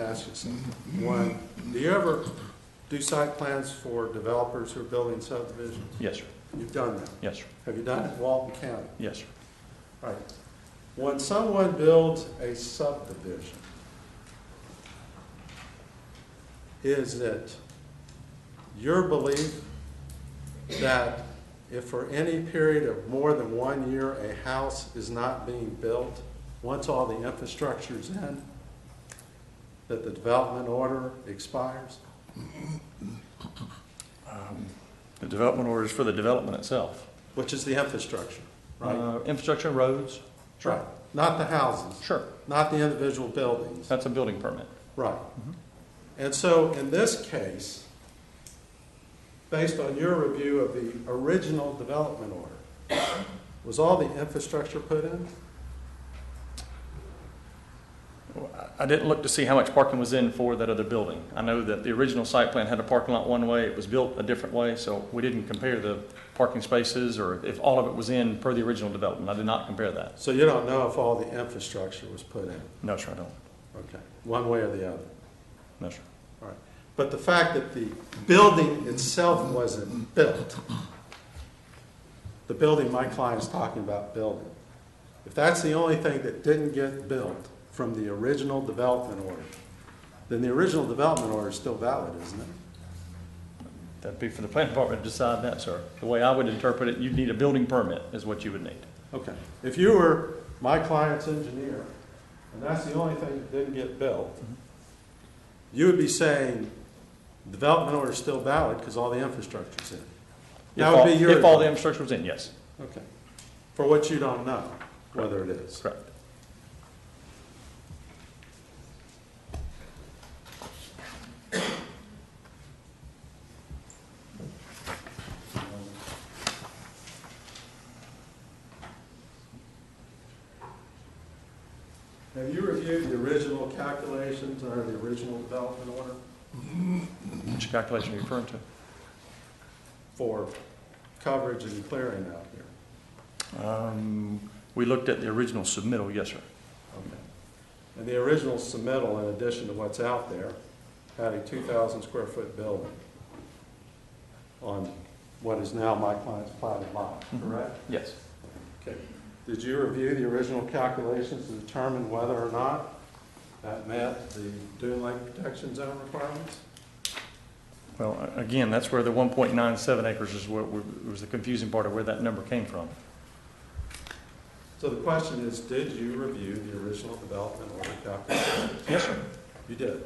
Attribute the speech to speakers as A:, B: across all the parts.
A: ask you something. One, do you ever do site plans for developers who are building subdivisions?
B: Yes, sir.
A: You've done that.
B: Yes, sir.
A: Have you done it in Walton County?
B: Yes, sir.
A: All right. When someone builds a subdivision, is it your belief that if for any period of more than one year, a house is not being built, once all the infrastructure is in, that the development order expires?
B: The development order is for the development itself.
A: Which is the infrastructure, right?
B: Uh, Infrastructure, roads.
A: Right. Not the houses,
B: Sure.
A: not the individual buildings.
B: That's a building permit.
A: Right. Mm-hmm. And so in this case, based on your review of the original development order, was all the infrastructure put in?
B: Well, I I didn't look to see how much parking was in for that other building. I know that the original site plan had a parking lot one way, it was built a different way, so we didn't compare the parking spaces or if all of it was in per the original development. I did not compare that.
A: So you don't know if all the infrastructure was put in?
B: No, sir, I don't.
A: Okay, one way or the other.
B: No, sir.
A: All right. But the fact that the building itself wasn't built, the building my client's talking about building, if that's the only thing that didn't get built from the original development order, then the original development order is still valid, isn't it?
B: That'd be for the planning department to decide that, sir. The way I would interpret it, you'd need a building permit is what you would need.
A: Okay. If you were my client's engineer, and that's the only thing that didn't get built, you would be saying, development order is still valid because all the infrastructure's in.
B: If
A: That would be
B: all-
A: your
B: If all the infrastructure was in, yes,
A: Okay. For what you don't know, whether it is.
B: correct.
A: Have you reviewed the original calculations under the original development order
B: Which calculation are you referring to?
A: for coverage and clearing out here?
B: Um, We looked at the original submittal, yes, sir.
A: Okay. And the original submittal, in addition to what's out there, had a 2,000 square foot building on what is now my client's platted lot, correct?
B: Yes.
A: Okay. Did you review the original calculations to determine whether or not that met the dune lake protection zone requirements?
B: Well, a- again, that's where the 1.97 acres is what we- was the confusing part of where that number came from.
A: So the question is, did you review the original development order calculations?
B: Yes, sir. Mm-hmm.
A: You did?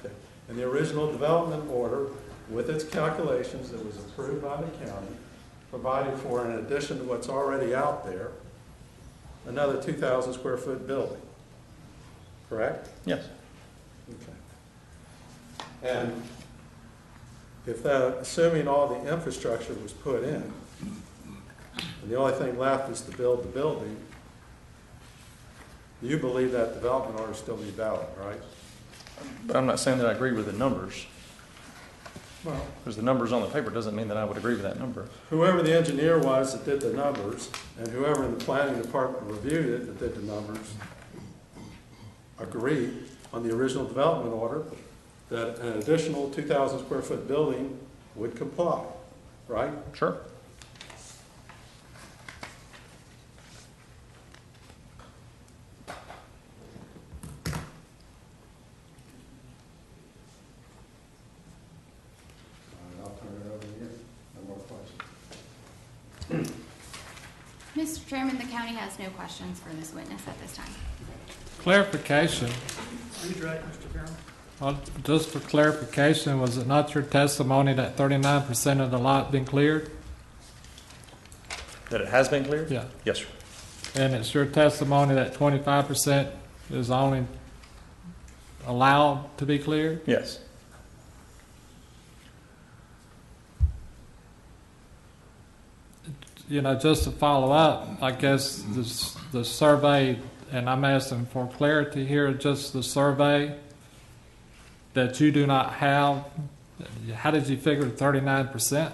A: Okay. And the original development order, with its calculations that was approved by the county, provided for, in addition to what's already out there, another 2,000 square foot building, correct?
B: Yes.
A: Okay. And if that, assuming all the infrastructure was put in, and the only thing left is to build the building, you believe that development order still be valid, right?
B: But I'm not saying that I agree with the numbers,
A: Well.
B: because the numbers on the paper doesn't mean that I would agree with that number.
A: Whoever the engineer was that did the numbers, and whoever in the planning department reviewed it that did the numbers, agreed on the original development order that an additional two thousand square foot building would comply, right?
B: Sure.
A: I'll turn it over to you. No more questions.
C: Mr. Chairman, the county has no questions for this witness at this time.
D: Clarification, Well, just for clarification, was it not your testimony that thirty-nine percent of the lot been cleared?
B: That it has been cleared?
D: Yeah,
B: Yes, sir.
D: and it's your testimony that twenty-five percent is only allowed to be cleared?
B: Yes.
D: You know, just to follow up, I guess this, the survey, and I'm asking for clarity here, just the survey that you do not have, how did you figure thirty-nine percent?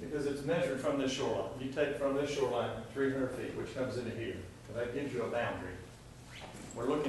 B: Because it's measured from this shoreline. You take from this shoreline 300 feet, which comes into here, so that gives you a boundary. We're looking